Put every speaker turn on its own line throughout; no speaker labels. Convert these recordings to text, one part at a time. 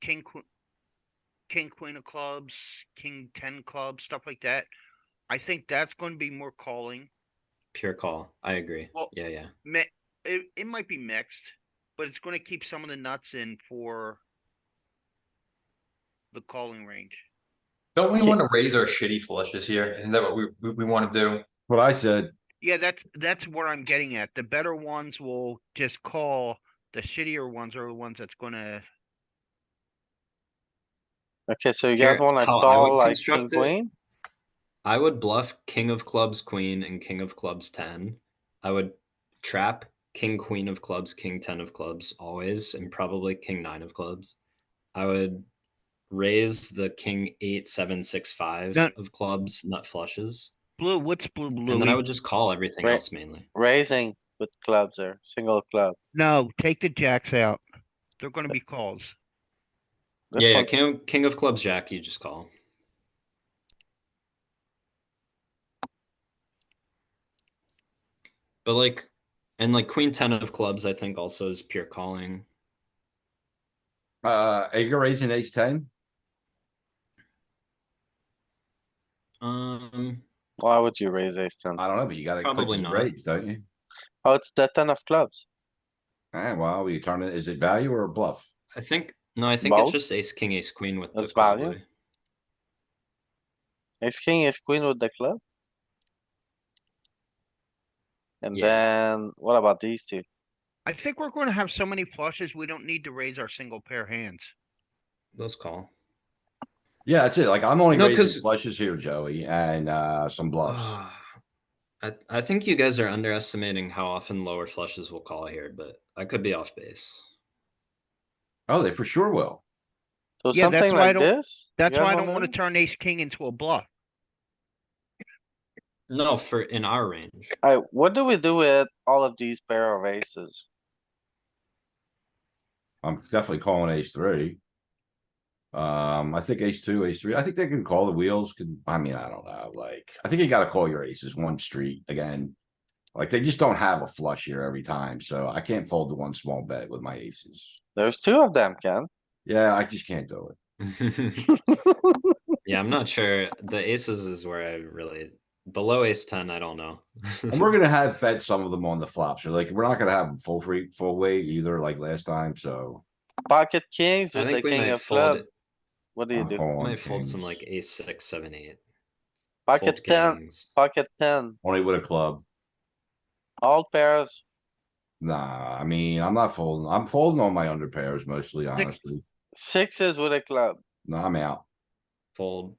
king, que- king, queen of clubs, king ten clubs, stuff like that. I think that's going to be more calling.
Pure call. I agree.
Well-
yeah, yeah.
Mi- It, it might be mixed, but it's going to keep some of the nuts in for the calling range.
Don't we
Yeah.
want to raise our shitty flushes here? Isn't that what we, we, we want to do?
What I said,
Yeah, that's that's what I'm getting at. The better ones will just call. The shittier ones are the ones that's going to.
Okay, so you
Here,
guys wanna
how I would
call like king
construct it-
queen?
I would bluff king of clubs, queen, and king of clubs, 10. I would trap king, queen of clubs, king, 10 of clubs always, and probably king, nine of clubs. I would raise the king, eight, seven, six, five
No.
of clubs, nut flushes.
Blue, what's blue, blue?
And then I would just call everything
Right.
else mainly.
Raising with clubs or single club.
No, take the jacks out. They're going to be calls.
This
yeah, yeah,
one-
king, king of clubs, jack, you just call. But like, and like queen, 10 of clubs, I think also is pure calling.
uh, are you raising ace ten?
Um,
Why would you raise ace ten?
I don't know, but you gotta. click
Probably
to
not.
Raise, don't you?
Oh, it's the ten of clubs.
Ah, well, we turn it, is it value or a bluff?
I think no, I think
Both?
it's just ace king ace queen with
That's
the call
value?
blue.
Ace king, ace queen with the club. And
Yeah.
then what about these two?
I think we're going to have so many flushes, we don't need to raise our single pair hands.
Those call.
Yeah, that's it. Like, I'm only
No,
raising
'cause-
flushes here, Joey, and, uh, some bluffs.
Ah, I I think you guys are underestimating how often lower flushes will call here, but I could be off base.
Oh, they for sure will.
So
Yeah, that's
something
why I
like
don't-
this? you
That's
guys
why I don't
wanna
want to
do?
turn ace king into a bluff.
No, for in our range.
Alright, what do we do with all of these pair of aces?
I'm definitely calling ace three. Um, I think ace two, ace three, I think they can call the wheels, can, I mean, I don't know, like, I think you gotta call your aces one street again. Like, they just don't have a flush here every time, so I can't fold the one small bet with my aces.
There's two of them, Ken.
Yeah, I just can't do it.
yeah, I'm not sure. The aces is where I really below ace ten. I don't know.
And we're gonna have bet some of them on the flop, so like, we're not gonna have them full free, full weight either like last time, so.
Pocket kings
I
with the
think we
king
might
of
fold.
club. What do you
I'm
do?
calling
Might fold
kings.
some like ace six, seven, eight.
Pocket
fold
ten,
kings.
pocket ten,
Only with a club.
all pairs.
Nah, I mean, I'm not folding. I'm folding on my under pairs mostly, honestly.
Sixes with a club,
No, I'm out.
Fold.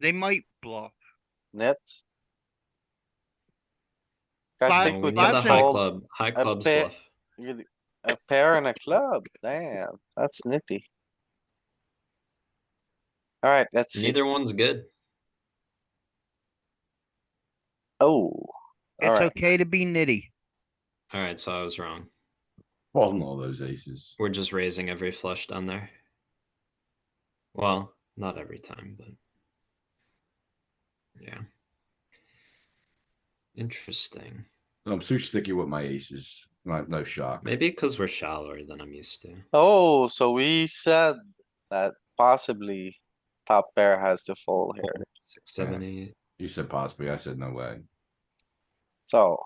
They might bluff.
nets. Guys,
Five-
I
No,
think
we
we
need
five
the
can
cents.
high
fold
club. High
a
clubs
pair-
bluff.
you- a pair and a club, damn, that's nifty. Alright, let's see,
Neither one's good.
oh,
It's
alright,
okay to be nitty.
All right, so I was wrong.
Folding all those aces.
We're just raising every flush down there. Well, not every time, but yeah. Interesting.
I'm too sticky with my aces. No, no shock.
Maybe because we're shallower than I'm used to.
oh, so we said that possibly top pair has to fold here,
Six, seven, eight.
You said possibly. I said no way.
so.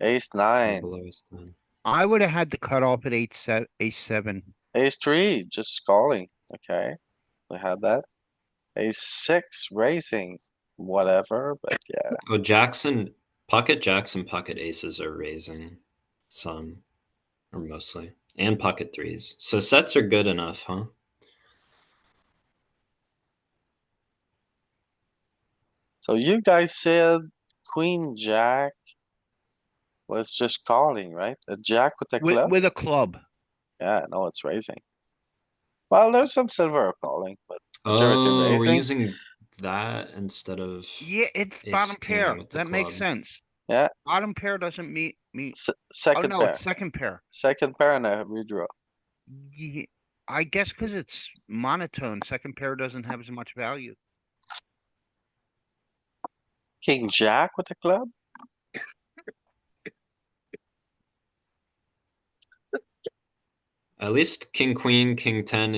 Ace
or
nine,
below is done.
I would have had to cut off at eight se- ace seven.
ace three, just calling, okay, we had that. Ace six raising, whatever, but yeah.
Oh, Jackson, pocket jacks and pocket aces are raising some, or mostly, and pocket threes. So sets are good enough, huh?
So you guys said queen, jack. Was just calling, right? A jack with a
With,
club?
with a club.
Yeah, no, it's raising. Well, there's some silver calling, but Majority
Oh, we're
raising.
using that instead of.
Yeah, it's
Ace
bottom
king
pair.
with the
That makes
club.
sense.
Yeah.
Bottom pair doesn't meet, meet.
se-
Oh,
second
no,
pair,
it's second pair.
second pair and a redraw.
Ye- I guess because it's monotone, second pair doesn't have as much value.
King, jack with a club?
I At least king, queen, king ten